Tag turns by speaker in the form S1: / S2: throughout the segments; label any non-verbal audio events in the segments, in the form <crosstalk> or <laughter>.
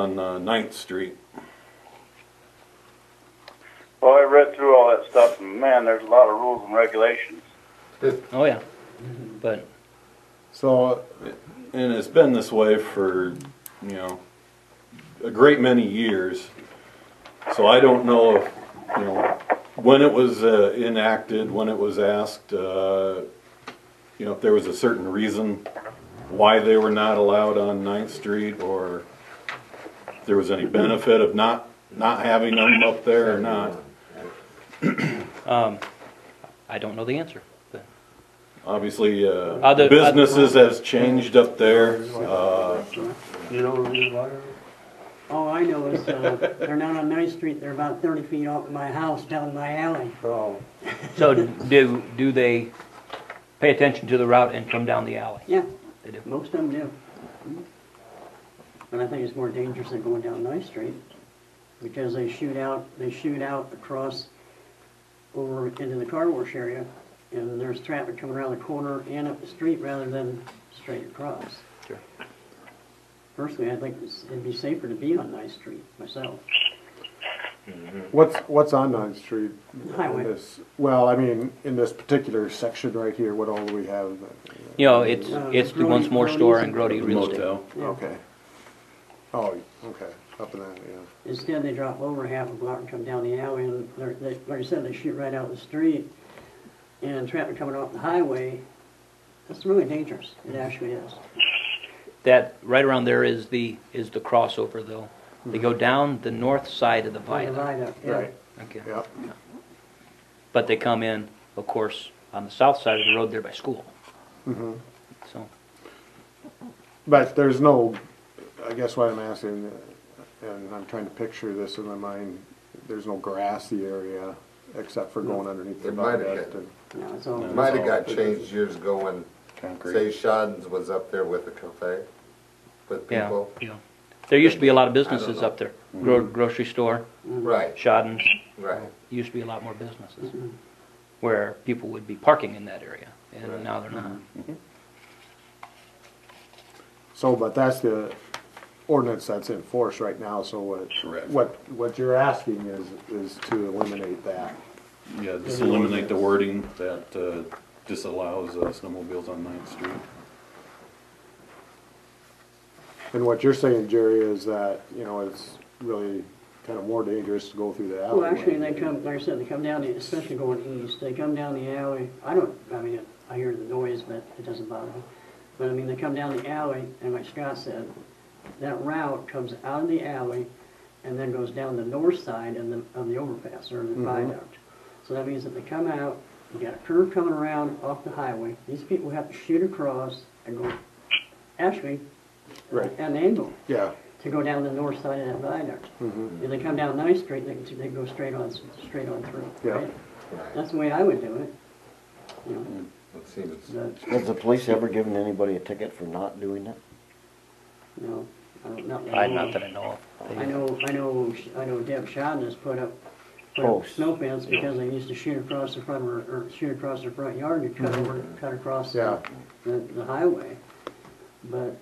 S1: on uh, Ninth Street.
S2: Well, I read through all that stuff, and man, there's a lot of rules and regulations.
S3: Oh, yeah. But
S4: So,
S1: And it's been this way for, you know, a great many years. So I don't know if, you know, when it was uh, enacted, when it was asked, uh, you know, if there was a certain reason why they were not allowed on Ninth Street or if there was any benefit of not, not having them up there or not.
S3: um, I don't know the answer. But
S1: Obviously, uh,
S3: Other-
S1: businesses has changed up there. Uh,
S5: You know, you like,
S6: All Oh, I know is, uh, they're not on Ninth Street, they're about thirty feet off my house down my alley.
S5: oh,
S3: So do, do they pay attention to the route and come down the alley?
S6: Yeah,
S3: They do.
S6: most of them do. And I think it's more dangerous than going down Ninth Street, because they shoot out, they shoot out across over into the car wash area, and there's traffic coming around the corner and up the street rather than straight across.
S3: Sure.
S6: Personally, I think it's- it'd be safer to be on Ninth Street myself.
S4: what's, what's on Ninth Street? in
S6: Highway.
S4: this- Well, I mean, in this particular section right here, what all do we have?
S3: You know, it's,
S6: Uh,
S3: it's the
S6: Grody-
S3: once more store and
S6: Grody's.
S3: Grody Real Estate.
S1: motel.
S6: Yeah.
S4: Okay. Oh, okay, up in that, yeah.
S6: Instead, they drop over half a block and come down the alley, and they're, they, like I said, they shoot right out the street, and traffic coming off the highway, that's really dangerous, it actually is.
S3: That, right around there is the, is the crossover though. They go down the north side of the viaduct.
S6: Divide up, yeah.
S4: Right.
S3: Okay.
S4: Yep,
S3: But they come in, of course, on the south side of the road there by school.
S6: Mm-hmm.
S3: So,
S4: but there's no, I guess what I'm asking, and I'm trying to picture this in my mind, there's no grassy area except for going underneath the
S7: It might have
S4: viaduct.
S7: been.
S4: and-
S6: No, it's all,
S7: It Might have got changed years ago when, say, Shadens was up there with the cafe, with
S3: yeah,
S7: people.
S3: yeah. There used to be a lot of businesses
S7: know.
S3: up there. Gro- Grocery store,
S6: Mm-hmm.
S7: Right,
S3: Shadden's,
S7: right.
S3: used to be a lot more businesses where people would be parking in that area, and now they're not.
S4: So, but that's the ordinance that's in force right now, so what,
S1: Correct.
S4: what, what you're asking is, is to eliminate that.
S1: Yeah, just eliminate the wording that uh, disallows uh, snowmobiles on Ninth Street.
S4: And what you're saying, Jerry, is that, you know, it's really kind of more dangerous to go through the alleyway.
S6: well, actually, they come, like I said, they come down, the especially going east, they come down the alley, I don't, I mean, I hear the noise, but it doesn't bother me. But I mean, they come down the alley, and like Scott said, that route comes out of the alley and then goes down the north side of the, of the overpass or the viaduct. So that means that they come out, you got a curve coming around off the highway, these people have to shoot across and go, actually,
S4: Right.
S6: at an angle
S4: Yeah,
S6: to go down the north side of that viaduct.
S8: Mm-hmm.
S6: If they come down Ninth Street, they can, they can go straight on, straight on through,
S4: Yeah.
S6: right?
S7: right.
S6: That's the way I would do it, you know,
S7: It seems,
S6: but,
S8: Has the police ever given anybody a ticket for not doing it?
S6: you know, I don't, not that I
S3: I,
S6: know
S3: not
S6: of.
S3: that I know of.
S6: I know, I know, I know Deb Shadden has put up, put up
S8: Posts.
S6: snow fence because they used to shoot across the front, of her- or shoot across their front yard and cut over,
S8: Mm-hmm.
S6: cut across
S4: Yeah.
S6: the, the the highway. But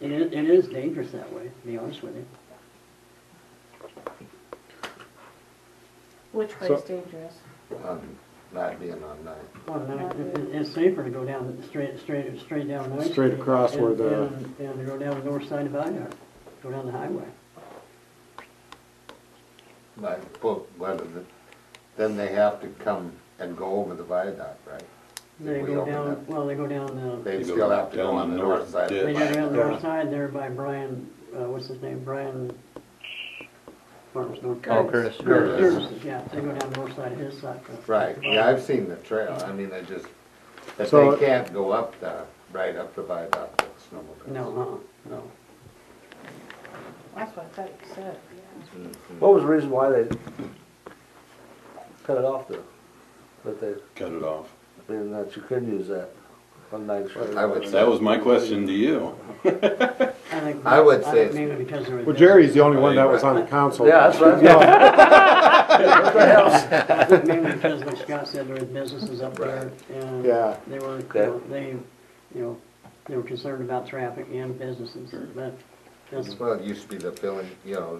S6: it is, it is dangerous that way, to be honest with you.
S9: Which way
S4: So-
S9: is dangerous?
S7: um, not being on night.
S6: Well, no, it- it- It's safer to go down, the- straight, straight, straight down Ninth Street.
S4: Straight across where
S6: and-
S4: the-
S6: And and to go down the north side of Viaduct, go down the highway.
S7: Like, but, but the- then they have to come and go over the viaduct, right?
S6: They
S7: we
S6: go
S7: open
S6: down,
S7: up-
S6: well, they go down the,
S7: They
S1: They go
S7: still have to
S1: down
S7: go on
S1: the
S7: the
S1: north
S7: north side. of the
S6: they
S1: ditch.
S6: go down the
S4: Yeah.
S6: north side there by Brian, uh, what's his name, Brian Farms North.
S3: Oh, Curtis.
S7: Curtis.
S6: Curtis, yeah, they go down the north side of his side. uh,
S7: Right, yeah, I've seen the trail, I mean, they just, that
S4: So-
S7: they can't go up the, right up the viaduct with snowmobiles.
S6: No, uh-huh.
S7: No.
S9: That's what I thought you said.
S5: what was the reason why they cut it off there? That they,
S1: Cut it off.
S5: I mean, that you couldn't use that on Ninth Street.
S7: I would
S1: That
S7: say,
S1: was my question to you.
S6: uh-uh. I think.
S7: I would
S6: think
S7: say it's-
S6: Maybe because there was.
S4: well, Jerry's the only one that was on the council.
S5: Yeah, that's right.
S4: Yeah,
S6: I think <laughs> Mainly because like Scott said, there were businesses up there and.
S4: Yeah.
S6: They were,
S5: Okay.
S6: they, you know, they were concerned about traffic and businesses, but That's
S7: Well, it used to be the filling, you know,